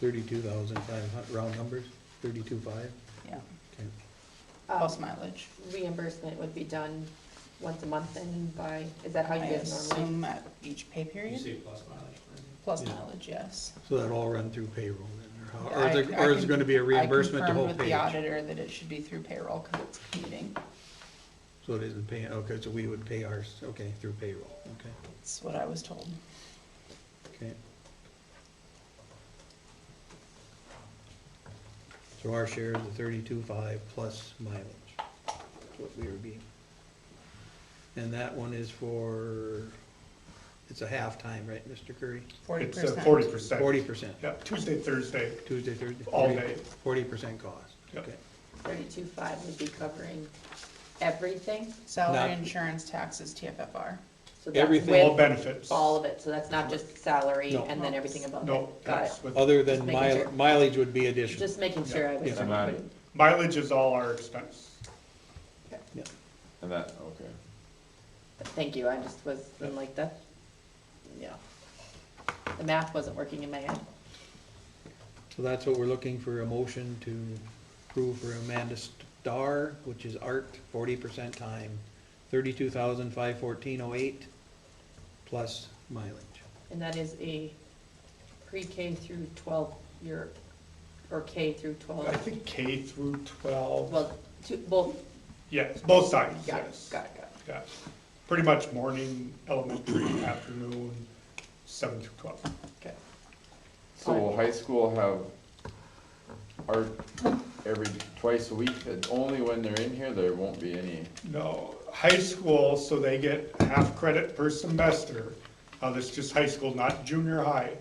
thirty-two thousand five hundred round numbers, thirty-two five? yeah, Okay. plus Um, mileage. Reimbursement would be done once a month and by, is that how I you guys normally? assume at each pay You period, say plus mileage. right? plus Yeah. mileage, yes. So that'll all run through payroll then, or how, or I- is it, I or is it con- gonna be a reimbursement to I whole confirmed with page? the auditor that it should be through payroll, cause it's commuting, So it isn't paying, okay, so we would pay ours, okay, through payroll, okay, that's what I was told. okay. So our share is the thirty-two five plus mileage, That's what we were being. And that one is for, it's a half-time, right, Mr. Curry? Forty It's uh, percent. forty percent. uh, Forty percent, Yeah, Tuesday, Thursday, Tuesday, Thursday? all day. Forty percent cost, Yep. okay. Thirty-two five would be covering everything, Salary, Not- insurance, taxes, TFFR. so that's Everything. all with benefits. all of it, so that's not just salary No. and then everything above No, it, got that's it? with, Other than Just making mile- sure. mileage would be additional. Just making sure I was. Yeah. Not- mileage is all our expense. Yeah. And that, okay. But Thank you, I just was, I'm like, that, yeah. The math wasn't working in my head. So that's what we're looking for, a motion to approve for Amanda Starr, which is art, forty percent time, thirty-two thousand five fourteen oh eight, plus mileage. And that is a pre-K through twelve year, or K through twelve, I think K through twelve, well, two, both, yes, both sides, got it, yes. got it, got it. Yes, pretty much morning, elementary, afternoon, seven through twelve. Okay. So will high school have art every, twice a week, and only when they're in here, there won't be any, No, high school, so they get half credit per semester. Uh, that's just high school, not junior high.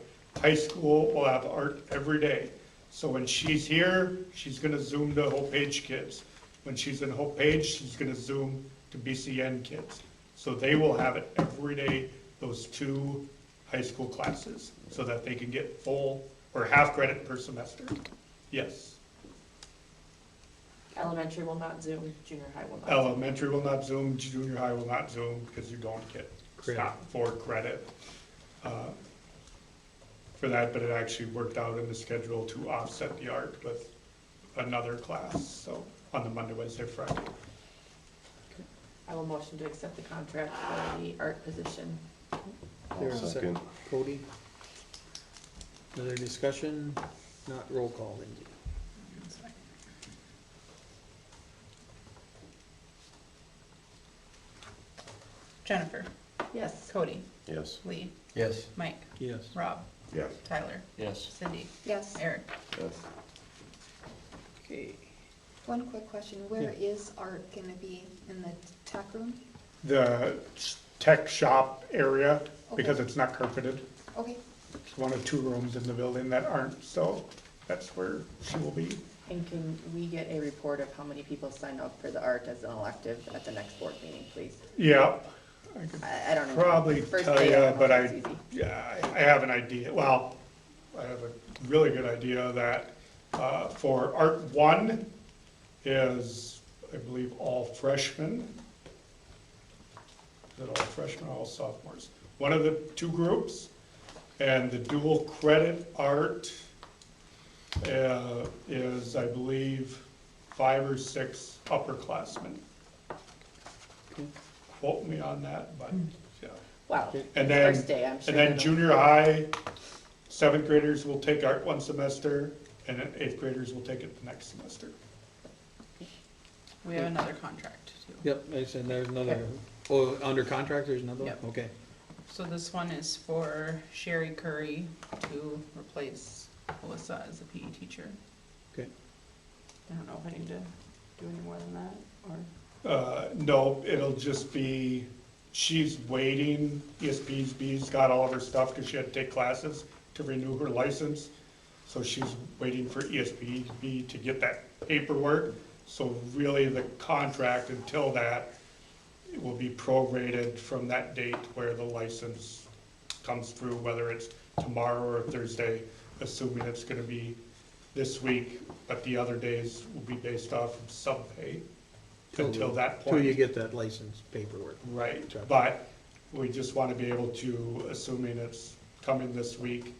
High school will have art every day. So when she's here, she's gonna zoom to Hope Page kids. When she's in Hope Page, she's gonna zoom to BCN kids. So they will have it every day, those two high school classes, so that they can get full or half credit per semester. Yes. Elementary will not Zoom, junior high will not. Zoom. Elementary will not Zoom, junior high will not Zoom, because you don't get Credit. stopped for credit uh, for that, but it actually worked out in the schedule to offset the art with another class, so, on the Monday, Wednesday, Friday. I will motion to accept the contract for the art position. There's a second. Cody? Another discussion, not roll call, Lindsay. Jennifer, Yes. Cody, yes. Lee, Yes. Mike, Yes. Rob, Yes. Tyler, Yes. Cindy, Yes, Eric. Yes. Okay. one quick question, where is art gonna be, in the tech room? The tech shop area, because it's not carpeted, Okay, it's one of two rooms in the building that aren't, so that's where she will be. And can we get a report of how many people sign up for the art as an elective at the next board meeting, please? Yeah, I could I, I don't know. Probably First tell day, ya, don't know if but that's I- easy. Yeah, I I have an idea, well, I have a really good idea that, uh, for art one is, I believe, all freshmen. Is it all freshmen, or all sophomores? One of the two groups, and the dual credit art, uh, is, I believe, five or six upperclassmen. Quote me on that, but, yeah. Wow. And then- First day, I'm sure. And then it'll- junior high, seventh graders will take art one semester, and then eighth graders will take it the next semester. We have another contract too. Yep, I said there's another, oh, under contract, there's another one? Yep. Okay. So this one is for Sherry Curry to replace Melissa as a PE teacher. Okay. I don't know if I need to do any more than that, or, Uh, no, it'll just be, she's waiting, ESPB's got all of her stuff, because she had to take classes to renew her license. So she's waiting for E ESPB to get that paperwork. So really, the contract until that will be prorated from that date where the license comes through, whether it's tomorrow or Thursday, assuming it's gonna be this week, but the other days will be based off of subpay until that point. Till you get that license paperwork. Right, Gotcha. but we just want to be able to, assuming it's coming this week,